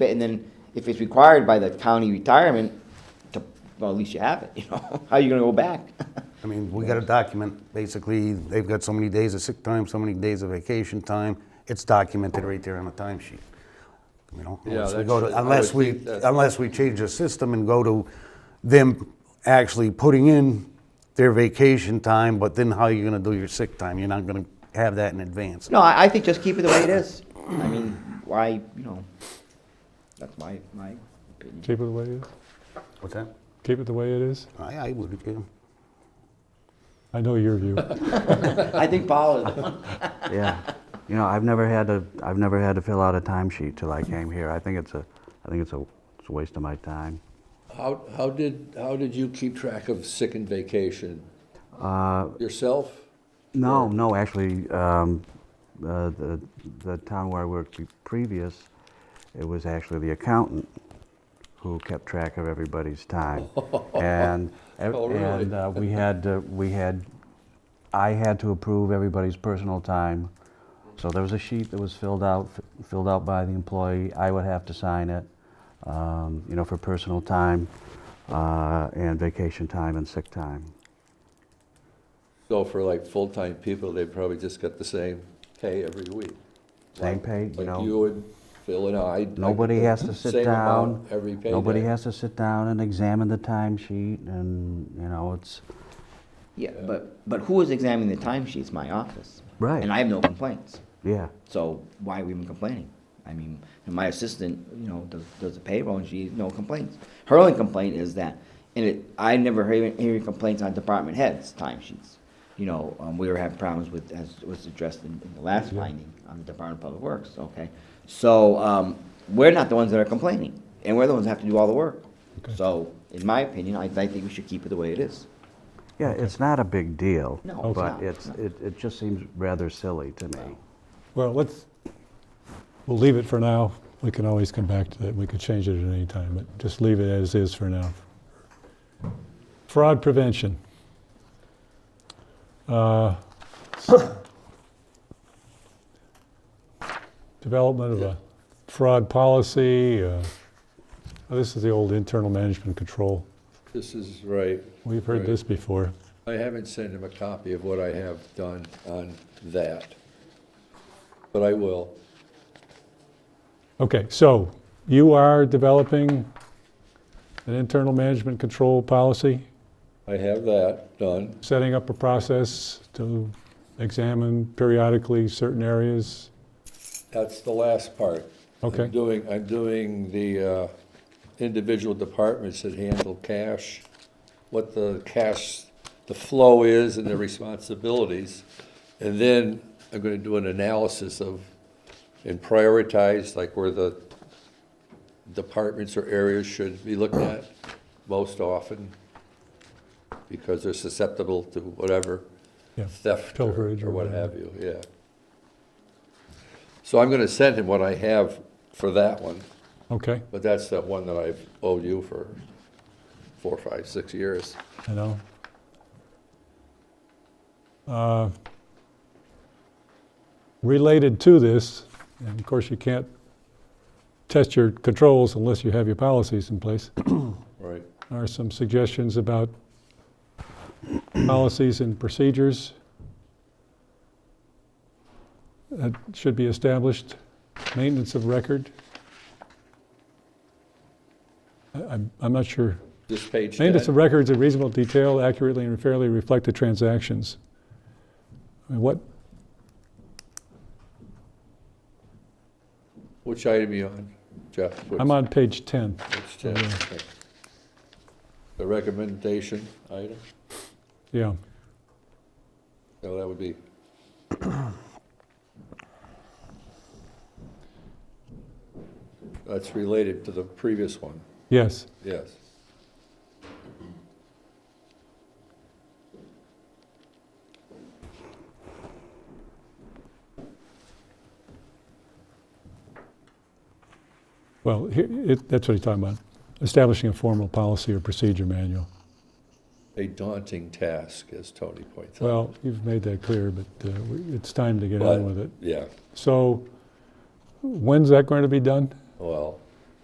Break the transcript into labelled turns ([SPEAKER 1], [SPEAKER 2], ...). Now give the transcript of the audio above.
[SPEAKER 1] fit, and then if it's required by the county retirement, to, well, at least you have it, you know, how are you gonna go back?
[SPEAKER 2] I mean, we got to document, basically, they've got so many days of sick time, so many days of vacation time. It's documented right there on the timesheet, you know?
[SPEAKER 3] Yeah,
[SPEAKER 2] unless we
[SPEAKER 3] that's-
[SPEAKER 2] go
[SPEAKER 3] I
[SPEAKER 2] to-
[SPEAKER 3] would
[SPEAKER 2] Unless we,
[SPEAKER 3] think that's-
[SPEAKER 2] unless we change the system and go to them actually putting in their vacation time, but then how are you going to do your sick time? You're not going to have that in advance.
[SPEAKER 1] No, I, I think just keep it the way it is, I mean, why, you know, that's my, my opinion.
[SPEAKER 4] Keep it the way it is.
[SPEAKER 2] What's that?
[SPEAKER 4] Keep it the way it is.
[SPEAKER 2] I, I would, yeah.
[SPEAKER 4] I know your view.
[SPEAKER 1] I think Paul is the one.
[SPEAKER 5] Yeah. You know, I've never had to, I've never had to fill out a timesheet till I came here. I think it's a, I think it's a, it's a waste of my time.
[SPEAKER 3] How, how did, how did you keep track of sick and vacation?
[SPEAKER 5] Uh,
[SPEAKER 3] Yourself?
[SPEAKER 5] No, no, actually, um, uh, the, the town where I worked be- previous, it was actually the accountant who kept track of everybody's time. And, ev-
[SPEAKER 3] Oh, really?
[SPEAKER 5] and uh, we had, uh, we had, I had to approve everybody's personal time. So there was a sheet that was filled out, f- filled out by the employee. I would have to sign it, um, you know, for personal time, uh, and vacation time and sick time.
[SPEAKER 3] So for like full-time people, they probably just got the same pay every week.
[SPEAKER 5] Same pay, you know.
[SPEAKER 3] Like you and Phil and I. like
[SPEAKER 5] Nobody
[SPEAKER 3] the
[SPEAKER 5] has to sit
[SPEAKER 3] same amount
[SPEAKER 5] down.
[SPEAKER 3] Every payday.
[SPEAKER 5] Nobody has to sit down and examine the timesheet and, you know, it's,
[SPEAKER 1] Yeah, but, but who is examining the timesheets? My office.
[SPEAKER 5] Right.
[SPEAKER 1] And I have no complaints.
[SPEAKER 5] yeah.
[SPEAKER 1] So why are we even complaining? I mean, and my assistant, you know, does, does the payroll and she, no complaints. Her only complaint is that, and it, I never hear, hear complaints on department heads' timesheets. You know, um, we were having problems with, as was addressed in, in the last finding on the Department of Public Works, okay? So, um, we're not the ones that are complaining, and we're the ones that have to do all the work. So, in my opinion, I, I think we should keep it the way it is.
[SPEAKER 5] Yeah, it's not a big deal.
[SPEAKER 1] No, it's not,
[SPEAKER 5] But it's,
[SPEAKER 1] no.
[SPEAKER 5] it, it just seems rather silly to me.
[SPEAKER 4] Well, let's, we'll leave it for now. We can always come back to that. We could change it at any time, but just leave it as is for now. Fraud prevention. Uh, Development of a fraud policy. uh, This is the old internal management control.
[SPEAKER 3] This is right.
[SPEAKER 4] We've heard
[SPEAKER 3] Right.
[SPEAKER 4] this before.
[SPEAKER 3] I haven't sent him a copy of what I have done on that. But I will.
[SPEAKER 4] Okay, so you are developing an internal management control policy?
[SPEAKER 3] I have that done.
[SPEAKER 4] setting up a process to examine periodically certain areas.
[SPEAKER 3] That's the last part.
[SPEAKER 4] Okay.
[SPEAKER 3] I'm doing, I'm doing the uh, individual departments that handle cash, what the cash, the flow is and the responsibilities. And then I'm gonna do an analysis of, and prioritize, like where the departments or areas should be looked at most often, because they're susceptible to whatever
[SPEAKER 4] Yeah.
[SPEAKER 3] theft or-
[SPEAKER 4] Pilferage or
[SPEAKER 3] or what
[SPEAKER 4] whatever.
[SPEAKER 3] have you, yeah. So I'm going to send him what I have for that one,
[SPEAKER 4] Okay,
[SPEAKER 3] but that's that one that I've owed you for four, five, six years.
[SPEAKER 4] I know. Uh, Related to this, and of course you can't test your controls unless you have your policies in place,
[SPEAKER 3] Right.
[SPEAKER 4] are some suggestions about policies and procedures that should be established, maintenance of record. I- I'm, I'm not sure.
[SPEAKER 3] This page
[SPEAKER 4] Maintenance
[SPEAKER 3] 10,
[SPEAKER 4] of records in reasonable detail accurately and fairly reflect the transactions. I mean, What,
[SPEAKER 3] which item are you on, Jeff? Which-
[SPEAKER 4] I'm on page 10.
[SPEAKER 3] which 10? Okay. The recommendation item?
[SPEAKER 4] Yeah,
[SPEAKER 3] No, that would be, that's related to the previous one,
[SPEAKER 4] yes.
[SPEAKER 3] yes.
[SPEAKER 4] Well, he- it- that's what he's talking about, establishing a formal policy or procedure manual.
[SPEAKER 3] a daunting task, as Tony points out.
[SPEAKER 4] Well, you've made that clear, but uh, we- it's time to get
[SPEAKER 3] But,
[SPEAKER 4] on with it.
[SPEAKER 3] Yeah,
[SPEAKER 4] So when's that going to be done?
[SPEAKER 3] well,